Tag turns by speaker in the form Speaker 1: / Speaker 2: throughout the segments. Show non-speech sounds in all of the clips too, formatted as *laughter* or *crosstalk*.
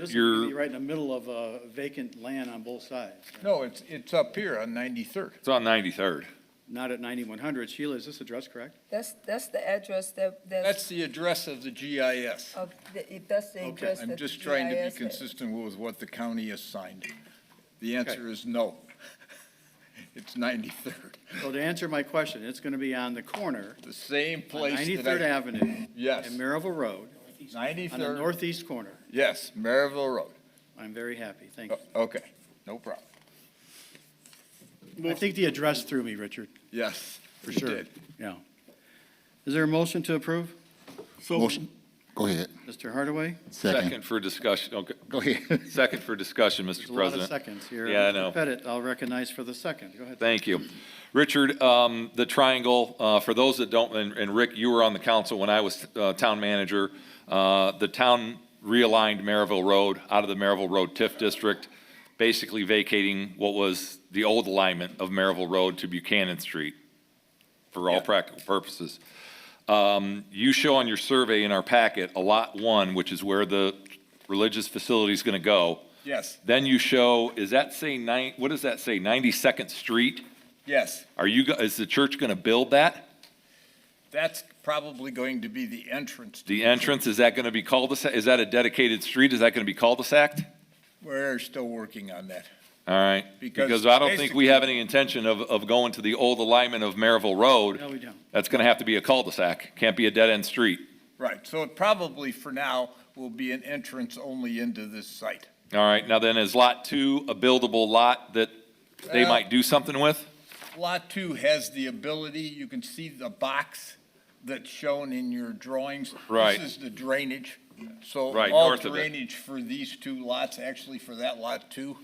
Speaker 1: This is
Speaker 2: you're-
Speaker 1: really right in the middle of uh, vacant land on both sides.
Speaker 3: No, it's, it's up here on 93rd.
Speaker 2: It's on 93rd.
Speaker 1: Not at 9100. Sheila, is this address correct?
Speaker 4: That's, that's the address that,
Speaker 3: That's
Speaker 4: that's,
Speaker 3: the address of the GIS.
Speaker 4: of the- if Oh, that's the
Speaker 1: Okay.
Speaker 4: address that
Speaker 3: I'm
Speaker 4: the
Speaker 3: just trying to
Speaker 4: GIS
Speaker 3: be
Speaker 4: had.
Speaker 3: consistent with what the county assigned. The answer is no. *laughs* It's 93rd,
Speaker 1: So to answer my question, it's going to be on the corner,
Speaker 3: the same
Speaker 1: on
Speaker 3: place that
Speaker 1: 93rd
Speaker 3: I.
Speaker 1: Avenue
Speaker 3: Yes,
Speaker 1: and Maryville Road, on the
Speaker 3: 93rd,
Speaker 1: northeast corner.
Speaker 3: yes, Maryville Road.
Speaker 1: I'm very happy, thank
Speaker 3: O-
Speaker 1: you.
Speaker 3: Okay, no problem.
Speaker 1: I think the address threw me, Richard,
Speaker 3: Yes,
Speaker 1: for
Speaker 3: you
Speaker 1: sure.
Speaker 3: did.
Speaker 1: Yeah. Is there a motion to approve?
Speaker 5: Motion, go ahead,
Speaker 1: Mr. Hardaway?
Speaker 5: second,
Speaker 2: Second for discussion, okay,
Speaker 5: go ahead.
Speaker 2: second for discussion,
Speaker 1: There's
Speaker 2: Mr.
Speaker 1: a lot of
Speaker 2: President.
Speaker 1: seconds here.
Speaker 2: Yeah, I
Speaker 1: Mr.
Speaker 2: know.
Speaker 1: Pettit, I'll recognize for the second. Go ahead.
Speaker 2: Thank you. Richard, um, the triangle, uh, for those that don't, and- and Rick, you were on the council when I was uh, town manager. Uh, The town realigned Maryville Road out of the Maryville Road TIF district, basically vacating what was the old alignment of Maryville Road to Buchanan Street for all practical purposes. Um, You show on your survey in our packet, a lot one, which is where the religious facility is going to go.
Speaker 3: Yes,
Speaker 2: Then you show, is that say nine, what does that say, 92nd Street?
Speaker 3: yes,
Speaker 2: Are you, go- is the church going to build that?
Speaker 3: that's probably going to be the entrance. to
Speaker 2: The entrance, is that going to be cul-de-sac? Is that a dedicated street? Is that going to be cul-de-sac?
Speaker 3: We're still working on that.
Speaker 2: All right,
Speaker 3: Because
Speaker 2: because I don't think we have any intention of, of going to the old alignment of Maryville
Speaker 1: No,
Speaker 2: Road.
Speaker 1: we don't.
Speaker 2: That's going to have to be a cul-de-sac, can't be a dead-end street.
Speaker 3: Right, so it probably for now will be an entrance only into this site.
Speaker 2: All right, now then, is Lot 2 a buildable lot that they
Speaker 3: Uh,
Speaker 2: might do something with?
Speaker 3: Lot two has the ability, you can see the box that's shown in your drawings.
Speaker 2: Right.
Speaker 3: This is the drainage. So
Speaker 2: Right,
Speaker 3: all
Speaker 2: north of it.
Speaker 3: drainage for these two lots, actually for that lot two,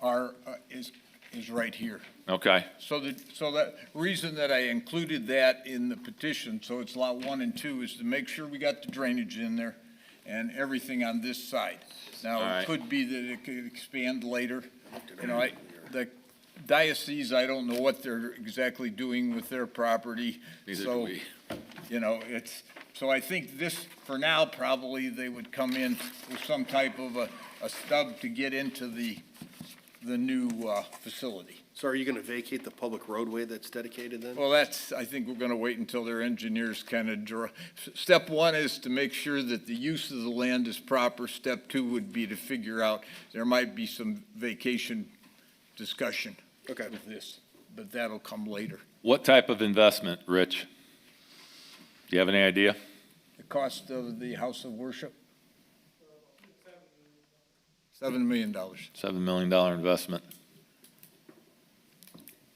Speaker 3: are, uh, is, is right here.
Speaker 2: Okay,
Speaker 3: So the, so that, reason that I included that in the petition, so it's lot one and two, is to make sure we got the drainage in there and everything on this side.
Speaker 2: All
Speaker 3: Now,
Speaker 2: right.
Speaker 3: it could be that it could expand later, you know, I, the diocese, I don't know what they're exactly doing with their property.
Speaker 2: Neither do
Speaker 3: so,
Speaker 2: we.
Speaker 3: You know, it's, so I think this, for now, probably they would come in with some type of a, a stub to get into the, the new, uh, facility.
Speaker 6: So are you going to vacate the public roadway that's dedicated then?
Speaker 3: Well, that's, I think we're going to wait until their engineers kind of draw. Step one is to make sure that the use of the land is proper. Step two would be to figure out, there might be some vacation discussion
Speaker 6: Okay.
Speaker 3: with this, but that'll come later.
Speaker 2: what type of investment, Rich? Do you have any idea?
Speaker 3: The cost of the house of worship? Seven million dollars.
Speaker 2: $7 million investment.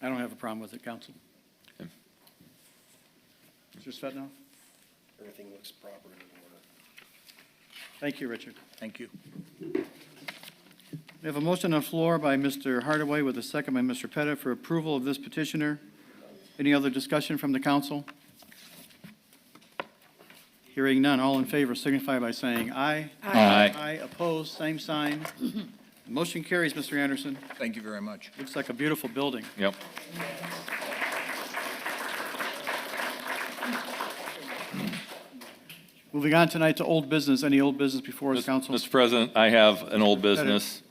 Speaker 1: I don't have a problem with it, counsel.
Speaker 2: Okay.
Speaker 1: Mr. Svetnov?
Speaker 6: Everything looks proper and in order.
Speaker 1: Thank you, Richard.
Speaker 3: Thank you.
Speaker 1: We have a motion on the floor by Mr. Hardaway with a second by Mr. Pettit for approval of this petitioner. Any other discussion from the council? Hearing none, all in favor signify by saying aye.
Speaker 2: Aye.
Speaker 1: Aye, opposed, same sign. Motion carries, Mr. Anderson.
Speaker 3: Thank you very much.
Speaker 1: Looks like a beautiful building.
Speaker 2: Yep.
Speaker 1: Moving on tonight to old business. Any old business before us, council?
Speaker 2: Mr. President, I have an old business.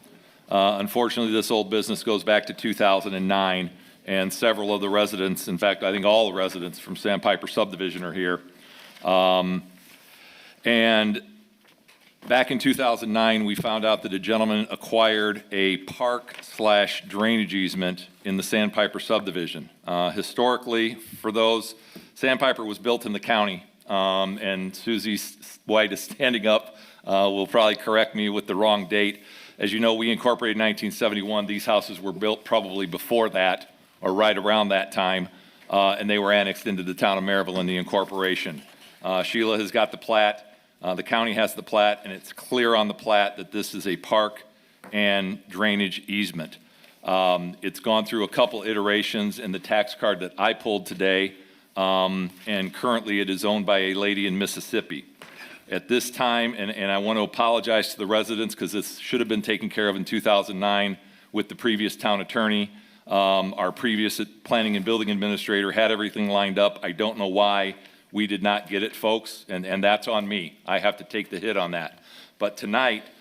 Speaker 2: Uh, Unfortunately, this old business goes back to 2009, and several of the residents, in fact, I think all the residents from Sandpiper subdivision are here. Um, And back in 2009, we found out that a gentleman acquired a park slash drainage easement in the Sandpiper subdivision. Uh, Historically, for those, Sandpiper was built in the county, um, and Suzie S- White is *laughs* standing up, uh, will probably correct me with the wrong date. As you know, we incorporated 1971. These houses were built probably before that, or right around that time, uh, and they were annexed into the town of Maryville in the incorporation. Uh, Sheila has got the plat. Uh, The county has the plat, and it's clear on the plat that this is a park and drainage easement. Um, It's gone through a couple iterations in the tax card that I pulled today, um, and currently it is owned by a lady in Mississippi. At this time, and, and I want to apologize to the residents because this should have been taken care of in 2009 with the previous town attorney. Um, Our previous planning and building administrator had everything lined up. I don't know why we did not get it, folks, and, and that's on me. I have to take the hit on that. But tonight,